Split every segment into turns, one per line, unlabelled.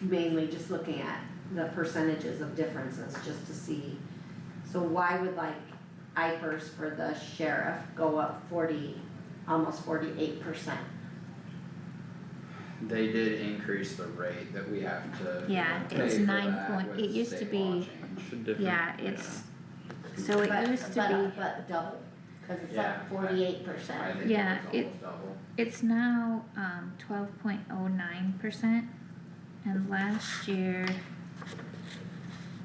mainly just looking at the percentages of differences, just to see. So why would like IFRS for the sheriff go up forty, almost forty-eight percent?
They did increase the rate that we have to.
Yeah,
pay
it's
for
nine
that
point-
with
it used to
state law
be-
change.
Should differ.
yeah, it's, so it used to
But uh, double, cause it's
Yeah.
up forty-eight
I
percent.
think
Yeah,
it was
it-
almost double.
be, it's now, um, twelve point oh nine percent, and last year.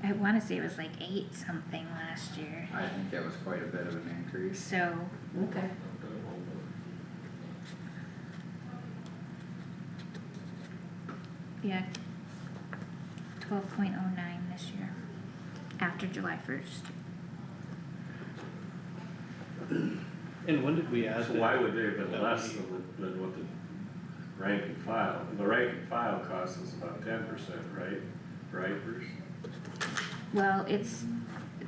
I wanna say it was like eight something last year,
I think it was quite a bit of an increase.
so,
Okay.
yeah. Twelve point oh nine this year, after July first.
And when did we add
So
that?
why would they have
that
been
would
less
be-
than, the- than what the rank and file, the rank and file cost is about ten percent, right? For IFRS?
Well, it's,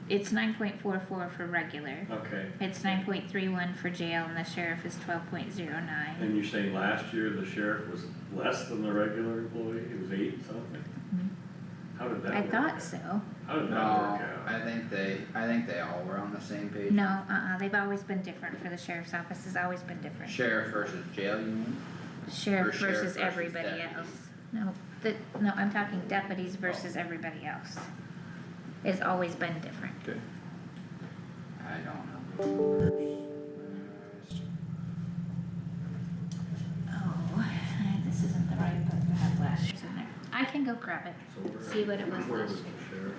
it's nine point four four for regular,
okay,
it's nine point three one for jail, and the sheriff is twelve point zero nine.
and you're saying last year the sheriff was less than the regular employee, it was eight something?
Mhm.
How did that
I
work?
thought
out?
so,
How did that
No,
work out?
I think they, I think they all were on the same page.
no, uh-uh, they've always been different for the sheriff's office, has always been different.
Sheriff versus jail union,
Sheriff
sheriff
versus
versus
everybody
deputies.
else, no, the, no, I'm talking deputies versus everybody else. It's always been different,
I don't know.
oh, this isn't the right book I have last year's in there, I can go grab it, see what it was last year.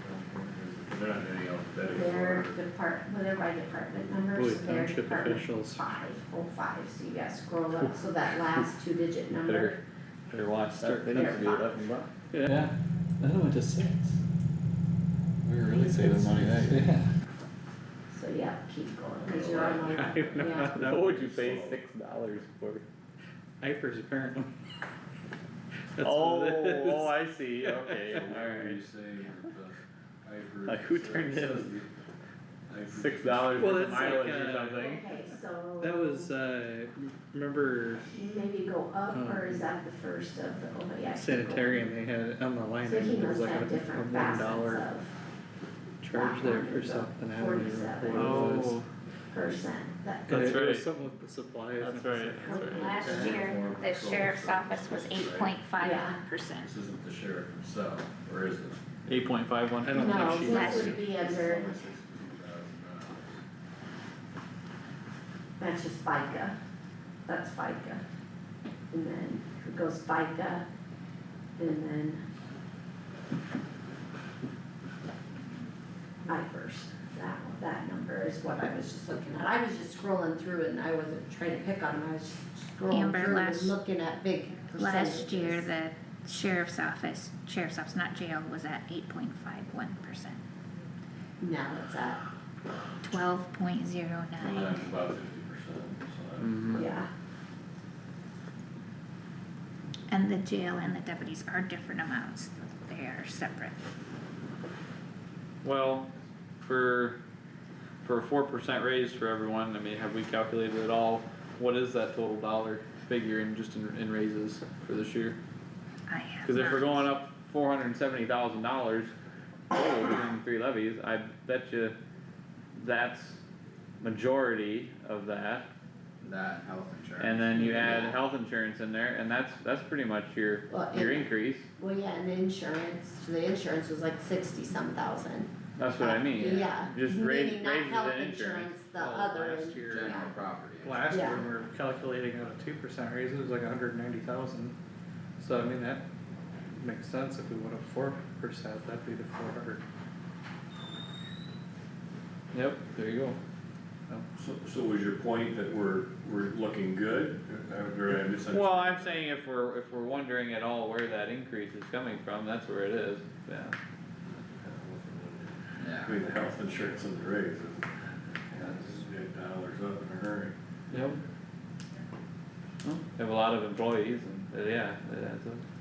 They're not any alphabetical
Their
order.
depart, whatever my department numbers,
Boy,
their
township
department
officials
five oh five, so you gotta scroll up, so that last two digit number,
Better, better watch that, they
They're
need to do it
fine.
up and back.
Yeah, then it went to six.
We were really saving money that year.
Yeah.
so yeah, keep going, cause you're
Oh,
on
I
my,
know.
yeah.
What would you pay six dollars for?
Hypers apparently. That's
Oh,
what it is.
oh, I see, okay.
Where you say the IFRS.
Like, who turned
it says
in
the IFRS.
Six dollars
Well,
for
that's like,
mileage
uh,
or something.
Okay, so.
That was, uh, remember
Maybe go up, or
Um,
is that the first of the, oh, yeah. keep going.
sanitarium, they had on the line,
So he
item, there was like
must
a
have
a
different
one
facets
dollar
of
charge there for
background,
something, I don't remember
forty-seven.
what it was.
percent, that,
And
Oh,
it-
That's
it was
right.
something with the supplies.
That's
and
right,
stuff.
that's right.
Last year, the sheriff's office was eight point five one percent.
This isn't the sheriff himself, or is it?
Eight point five
I
one.
don't
no,
think she
that's-
this
was,
would be
It's
under,
only $16,000.
that's just FICA, that's FICA. And then it goes FICA, and then. IFRS, that, that number is what I was just looking at, I was just scrolling through it and I wasn't trying to pick on them, I was just scrolling
Amber,
through and
last-
looking at big percentages.
Last year, the sheriff's office, sheriff's office, not jail, was at eight point five one percent,
Now it's at
twelve point zero
Well,
nine.
that's about fifty percent, so that's-
Mm-hmm.
Mhm.
Yeah,
And the jail and the deputies are different amounts, they are separate.
Well, for, for a four percent raise for everyone, I mean, have we calculated at all? What is that total dollar figure in just in, in raises for this year?
I have
Cause if we're
not-
going up four hundred and seventy thousand dollars, total between three levies, I bet you that's majority of that.
That health insurance.
And then you
Yeah.
add health insurance in there, and that's, that's pretty much your,
well,
your
and,
increase,
well, yeah, and the insurance, the insurance was like sixty some thousand.
that's what I mean.
Yeah.
Just raise,
Meaning
raises
not health
in insurance.
insurance, the
Oh,
other,
last
in-
year.
General
yeah,
property.
Last year,
Yeah.
when we were calculating out a two percent raise, it was like hundred and ninety thousand, so I mean, that makes sense, if we went up four percent, that'd be the four hundred.
Yep, there you go.
So, so was your point that we're, we're looking good, or or I misunderstood?
Well, I'm saying if we're, if we're wondering at all where that increase is coming from, that's where it is, yeah.
Yeah.
Between the health insurance and the raise, it's, it's eight dollars up in a hurry.
Yep. Have a lot of employees and, uh, yeah, it adds up.